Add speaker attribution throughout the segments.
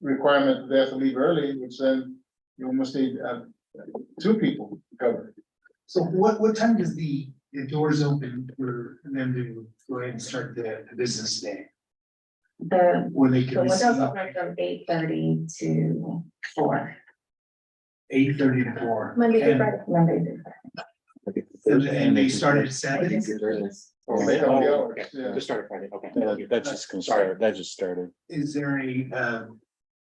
Speaker 1: requirement that they have to leave early, which then you almost need, uh, two people covered.
Speaker 2: So what, what time does the, the doors open for them to go ahead and start the, the business day?
Speaker 3: The,
Speaker 2: Where they
Speaker 3: the
Speaker 2: can
Speaker 3: windows
Speaker 2: receive
Speaker 3: open from eight thirty to four,
Speaker 2: eight thirty to four?
Speaker 4: Monday to
Speaker 2: and-
Speaker 4: Friday.
Speaker 3: Monday through Friday.
Speaker 2: And, and they start at seven?
Speaker 5: Oh,
Speaker 1: Or they have
Speaker 2: Oh,
Speaker 1: the hours, yeah.
Speaker 6: Just started Friday, okay.
Speaker 5: That- That's just, gonna start- that just started.
Speaker 2: Is there a, um,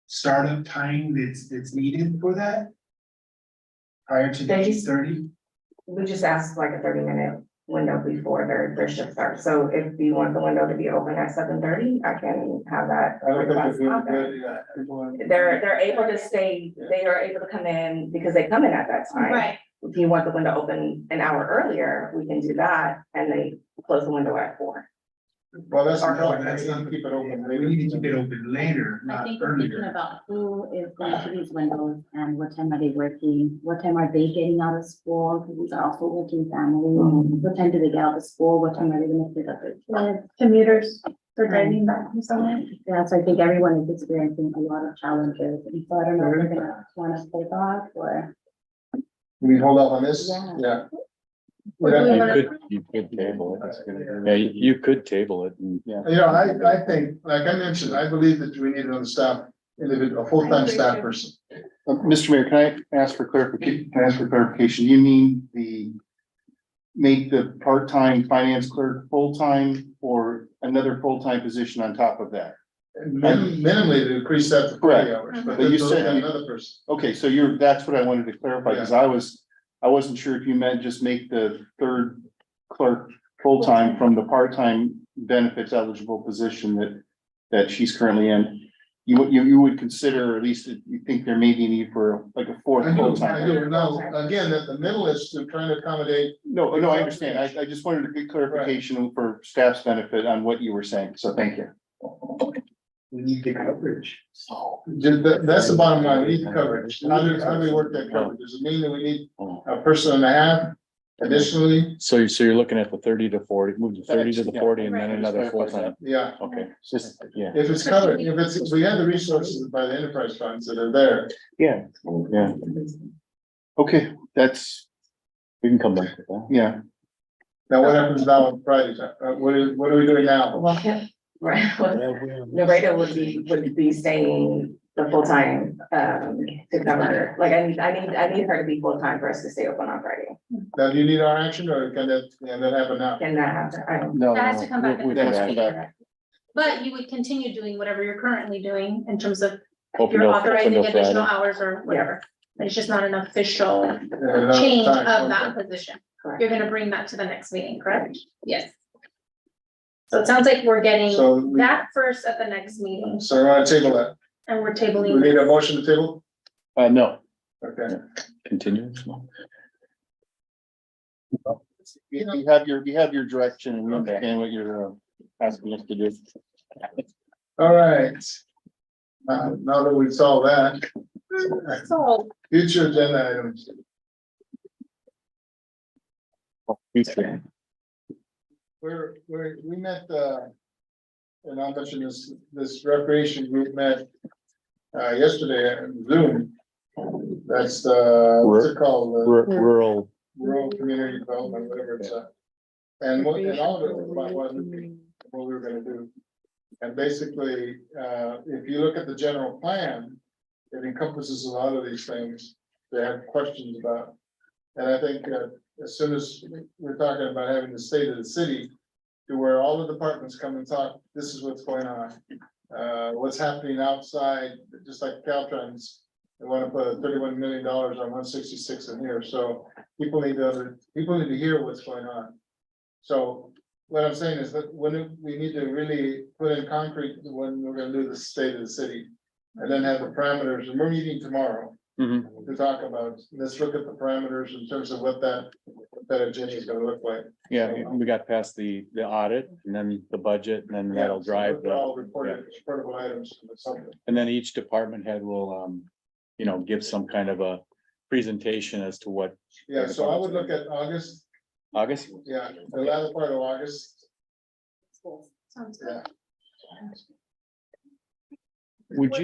Speaker 2: startup time that's, that's needed for that? Prior to the
Speaker 3: They
Speaker 2: eight
Speaker 3: just-
Speaker 2: thirty?
Speaker 3: We just asked like a thirty minute window before their, their shift starts, so if you want the window to be open at seven thirty, I can have that.
Speaker 1: I don't think
Speaker 3: request
Speaker 1: it's really
Speaker 3: out there.
Speaker 1: good, yeah, people are-
Speaker 3: They're, they're able to stay, they are able to come in because they come in at that time.
Speaker 4: Right,
Speaker 3: If you want the window open an hour earlier, we can do that, and they close the window at four.
Speaker 1: Well, that's the
Speaker 3: Our-
Speaker 1: problem, that's not keep it open.
Speaker 2: We need to keep it open later,
Speaker 7: I
Speaker 1: Uh,
Speaker 2: not
Speaker 7: think we're thinking
Speaker 2: earlier.
Speaker 7: about who is going to these windows and what time are they working, what time are they getting out of school, because these are also working
Speaker 1: Mm-hmm.
Speaker 7: families. What time do they get out of school, what time are they gonna pick up their kids?
Speaker 4: commuters for driving back from somewhere.
Speaker 7: Yeah, so I think everyone is experiencing a lot of challenges, and so I don't know if we're gonna wanna play off or.
Speaker 1: We hold up on this,
Speaker 7: Yeah.
Speaker 1: yeah.
Speaker 4: We're
Speaker 1: We'd have
Speaker 4: doing
Speaker 1: to-
Speaker 5: You could, you could table it. It's gonna- Yeah, you you could table it and, yeah.
Speaker 1: You know, I, I think, like I mentioned, I believe that we need another staff, individual, a full-time staff person.
Speaker 6: Uh, Mr. Mayor, can I ask for clarification, can I ask for clarification? You mean the make the part-time finance clerk full-time or another full-time position on top of that?
Speaker 1: And Minim minimally to increase that to
Speaker 6: Correct.
Speaker 1: three hours, but
Speaker 6: But
Speaker 1: then
Speaker 6: you
Speaker 1: they'll
Speaker 6: said-
Speaker 1: have another person.
Speaker 6: Okay, so you're, that's what I wanted to clarify, because I was, I wasn't sure if you meant just make the third clerk full-time from the part-time benefits eligible position that, that she's currently in. You, would- you, you would consider, at least you think there may be need for like a fourth
Speaker 1: I do, I
Speaker 6: full-time.
Speaker 1: do, now, again, that the middle is to trying to accommodate,
Speaker 6: No, no, I understand. I, I just wanted to get clarification for staff's benefit on what you were saying, so thank you.
Speaker 2: We need the coverage.
Speaker 1: ju- that, that's the bottom line, we need coverage, how do, how do we work that coverage, does it mean that we need a person and a half additionally?
Speaker 5: oh. So you, so you're looking at the thirty to forty, move the thirty to the forty and then
Speaker 4: Right.
Speaker 5: another full-time.
Speaker 1: Yeah,
Speaker 5: Okay, it's just, yeah,
Speaker 1: if it's covered, if it's, we have the resources by the enterprise funds that are there,
Speaker 5: yeah, yeah.
Speaker 6: Okay, that's,
Speaker 5: We can come back with that.
Speaker 6: yeah,
Speaker 1: now what happens now on Friday, uh, what is, what are we doing now?
Speaker 3: Well, yeah, right, well, Narita would be, would be staying the full time, um, to cover, like, I need, I need, I need her to be full time for us to stay open on Friday.
Speaker 1: Now, do you need our action, or can that, can that happen now?
Speaker 3: Can that happen? I don't,
Speaker 5: No.
Speaker 4: That has to come back.
Speaker 5: we- we
Speaker 6: That
Speaker 5: can
Speaker 6: has to come
Speaker 5: add-
Speaker 6: back.
Speaker 4: But you would continue doing whatever you're currently doing in terms of
Speaker 5: open
Speaker 4: you're
Speaker 5: till- open
Speaker 4: authorizing
Speaker 5: till Friday.
Speaker 4: additional hours or whatever. It's just not an official
Speaker 1: Uh,
Speaker 4: change
Speaker 1: time,
Speaker 4: of
Speaker 1: okay.
Speaker 4: that position.
Speaker 3: correct.
Speaker 4: You're gonna bring that to the next meeting, correct? Yes. So it sounds like we're getting
Speaker 1: So, we-
Speaker 4: that first at the next meeting
Speaker 1: so we're on table that,
Speaker 4: and we're
Speaker 1: we need a
Speaker 4: tabling.
Speaker 1: motion to table,
Speaker 5: Uh, no,
Speaker 1: okay.
Speaker 5: continue.
Speaker 6: You you have your, you have your direction and we understand what you're uh, asking us to do.
Speaker 1: All right. Uh, now that we've solved that,
Speaker 4: So
Speaker 1: future agenda items,
Speaker 5: Future.
Speaker 1: we're, we're, we met, uh. And I'll mention this, this recreation group met, uh, yesterday on Zoom. That's, uh, what's it called? The
Speaker 5: Ru- Rural,
Speaker 1: Rural Community Development, whatever it's, uh. And what, and all of it was about what we- what we were gonna do. And basically, uh, if you look at the general plan, it encompasses a lot of these things they have questions about. And I think, uh, as soon as we're talking about having the state of the city, to where all the departments come and talk, this is what's going on. Uh, what's happening outside, just like Caltrans, they wanna put thirty-one million dollars on one sixty-six in here, so people need to, people need to hear what's going on. So what I'm saying is that when it- we need to really put in concrete when we're gonna do the state of the city. And then have the parameters, and we're meeting tomorrow.
Speaker 5: Mhm.
Speaker 1: To talk about, let's look at the parameters in terms of what that, what that agenda is gonna look like.
Speaker 5: yeah, we- we got past the, the audit and then the budget and then
Speaker 1: Yeah,
Speaker 5: that'll drive the.
Speaker 1: All reported, reportable items, something.
Speaker 5: And then each department head will, um, you know, give some kind of a presentation as to what,
Speaker 1: Yeah, so I would look at August,
Speaker 5: August?
Speaker 1: yeah, the latter part of August,
Speaker 4: sounds good.
Speaker 1: yeah.
Speaker 5: Would you